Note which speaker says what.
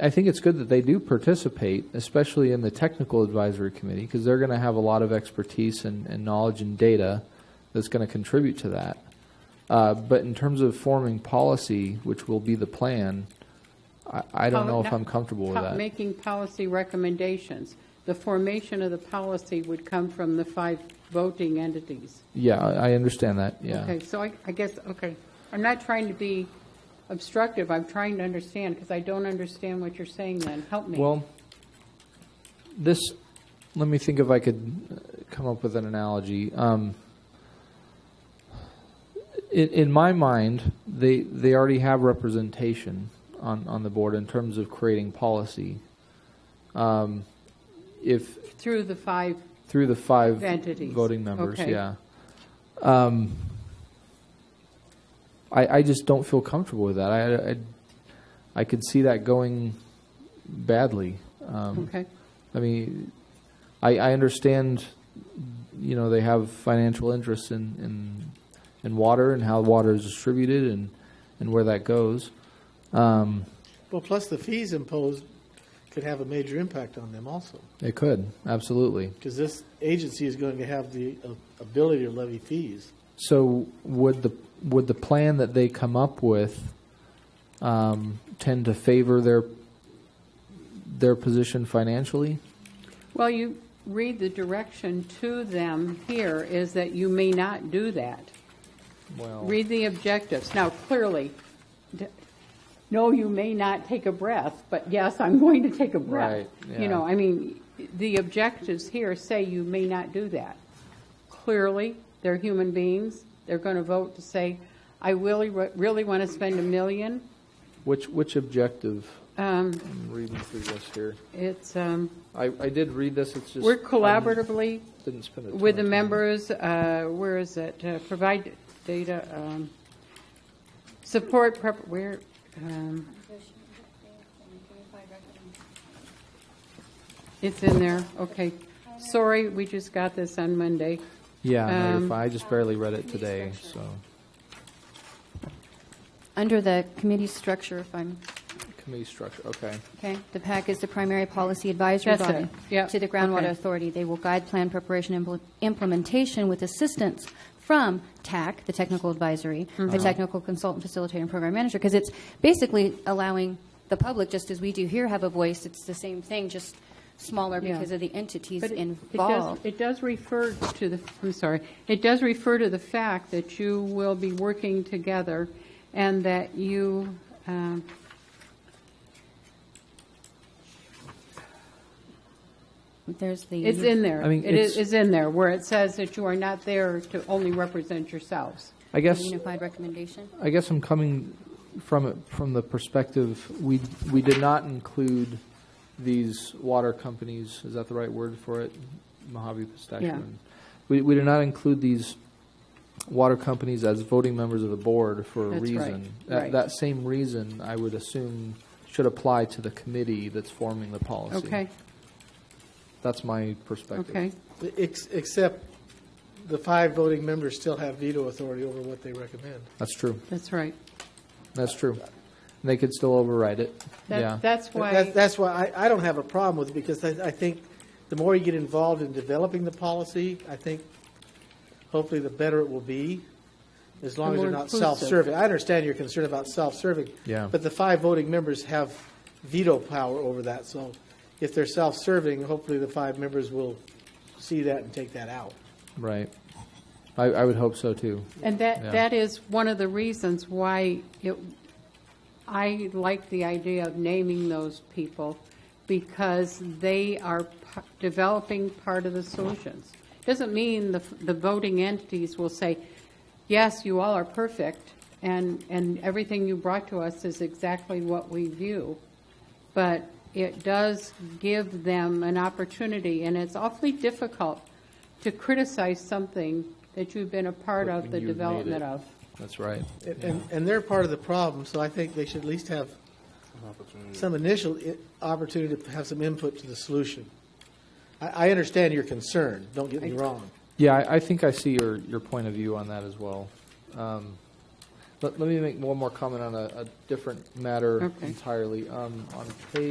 Speaker 1: I think it's good that they do participate, especially in the technical advisory committee, because they're going to have a lot of expertise and, and knowledge and data that's going to contribute to that. Uh, but in terms of forming policy, which will be the plan, I, I don't know if I'm comfortable with
Speaker 2: Po-
Speaker 1: that.
Speaker 2: Making policy recommendations. The formation of the policy would come from the five voting entities.
Speaker 1: Yeah, I I understand that, yeah.
Speaker 2: Okay, so I, I guess, okay, I'm not trying to be obstructive, I'm trying to understand, because I don't understand what you're saying then, help me.
Speaker 1: Well, this, let me think if I could uh, come up with an analogy. Um, in, in my mind, they, they already have representation on, on the board in terms of creating policy. Um, If,
Speaker 2: Through the five,
Speaker 1: through the five
Speaker 2: Entities.
Speaker 1: voting members,
Speaker 2: Okay.
Speaker 1: yeah. Um, I, I just don't feel comfortable with that. I, I, I could see that going badly. Um,
Speaker 2: okay,
Speaker 1: I mean, I, I understand, you know, they have financial interests in, in, in water and how water is distributed and, and where that goes. Um,
Speaker 3: Well, plus the fees imposed could have a major impact on them also,
Speaker 1: it could, absolutely.
Speaker 3: because this agency is going to have the uh, ability to levy fees.
Speaker 1: So would the, would the plan that they come up with um, tend to favor their, their position financially?
Speaker 2: well, you read the direction to them here is that you may not do that.
Speaker 1: Well,
Speaker 2: Read the objectives. Now, clearly, d- no, you may not take a breath, but yes, I'm going to take a breath.
Speaker 1: Right, yeah.
Speaker 2: You know, I mean, the objectives here say you may not do that. Clearly, they're human beings. They're going to vote to say, I really, really want to spend a million.
Speaker 1: which, which objective,
Speaker 2: Um,
Speaker 1: I'm reading through this here.
Speaker 2: It's, um,
Speaker 1: I, I did read this, it's just.
Speaker 2: we're collaboratively
Speaker 1: Didn't spend a ton
Speaker 2: with the
Speaker 1: of time.
Speaker 2: members, uh, where is it, Uh, provide data, um, support, prep- where, um, It's in there, okay. Sorry, we just got this on Monday.
Speaker 1: Yeah, no, you're
Speaker 2: Um,
Speaker 1: fine. I just barely read it today, so,
Speaker 4: Under the committee structure, if I'm,
Speaker 1: committee structure, okay.
Speaker 2: Okay,
Speaker 4: the PAC is the primary policy advisory
Speaker 2: That's
Speaker 4: body
Speaker 2: it. Yeah,
Speaker 4: to the
Speaker 2: okay.
Speaker 4: groundwater authority. They will guide plan preparation and impl- implementation with assistance from TAC, the technical advisory,
Speaker 2: Mm-hmm.
Speaker 4: the technical consultant facilitator and program manager, because it's basically allowing the public, just as we do here, have a voice. It's the same thing, just smaller
Speaker 2: Yeah.
Speaker 4: because of the entities
Speaker 2: But it- it does-
Speaker 4: involved.
Speaker 2: It does refer to the, I'm sorry, it does refer to the fact that you will be working together and that you, um,
Speaker 4: There's the.
Speaker 2: it's in there.
Speaker 1: I mean,
Speaker 2: It is
Speaker 1: it's-
Speaker 2: is in there, where it says that you are not there to only represent yourselves.
Speaker 1: I guess,
Speaker 4: Unified recommendation.
Speaker 1: I guess I'm coming from it, from the perspective, we, we did not include these water companies, is that the right word for it? Mojave Pistachio.
Speaker 2: Yeah.
Speaker 1: and- We, we did not include these water companies as voting members of the board for a
Speaker 2: That's right,
Speaker 1: reason. That-
Speaker 2: right.
Speaker 1: That same reason, I would assume, should apply to the committee that's forming the policy.
Speaker 2: Okay,
Speaker 1: That's my perspective.
Speaker 2: okay.
Speaker 3: Ex- Except the five voting members still have veto authority over what they recommend.
Speaker 1: That's true.
Speaker 2: That's right.
Speaker 1: That's true. And They could still override it.
Speaker 2: That-
Speaker 1: Yeah.
Speaker 2: That's
Speaker 3: That's-
Speaker 2: why,
Speaker 3: That's why I, I don't have a problem with it, because I, I think the more you get involved in developing the policy, I think hopefully the better it will be, as long
Speaker 2: The
Speaker 3: as they're
Speaker 2: more
Speaker 3: not
Speaker 2: inclusive.
Speaker 3: self-serving. I understand your concern about self-serving.
Speaker 1: Yeah.
Speaker 3: But the five voting members have veto power over that, so if they're self-serving, hopefully the five members will see that and take that out.
Speaker 1: Right. I, I would hope so too.
Speaker 2: and
Speaker 1: Yeah.
Speaker 2: that, that is one of the reasons why it, I like the idea of naming those people because they are p- developing part of the solutions. Doesn't mean the, the voting entities will say, yes, you all are perfect and, and everything you brought to us is exactly what we view. But it does give them an opportunity and it's awfully difficult to criticize something that you've been a part of the
Speaker 1: You've made it.
Speaker 2: development of.
Speaker 1: That's right.
Speaker 3: And- And, and they're part of the problem, so I think they should at least have some initial i- opportunity to have some input to the solution. I, I understand your concern, don't get me wrong.
Speaker 1: Yeah, I, I think I see your, your point of view on that as well. Um, let, let me make one more comment on a, a different matter
Speaker 2: Okay.
Speaker 1: entirely. Um, on page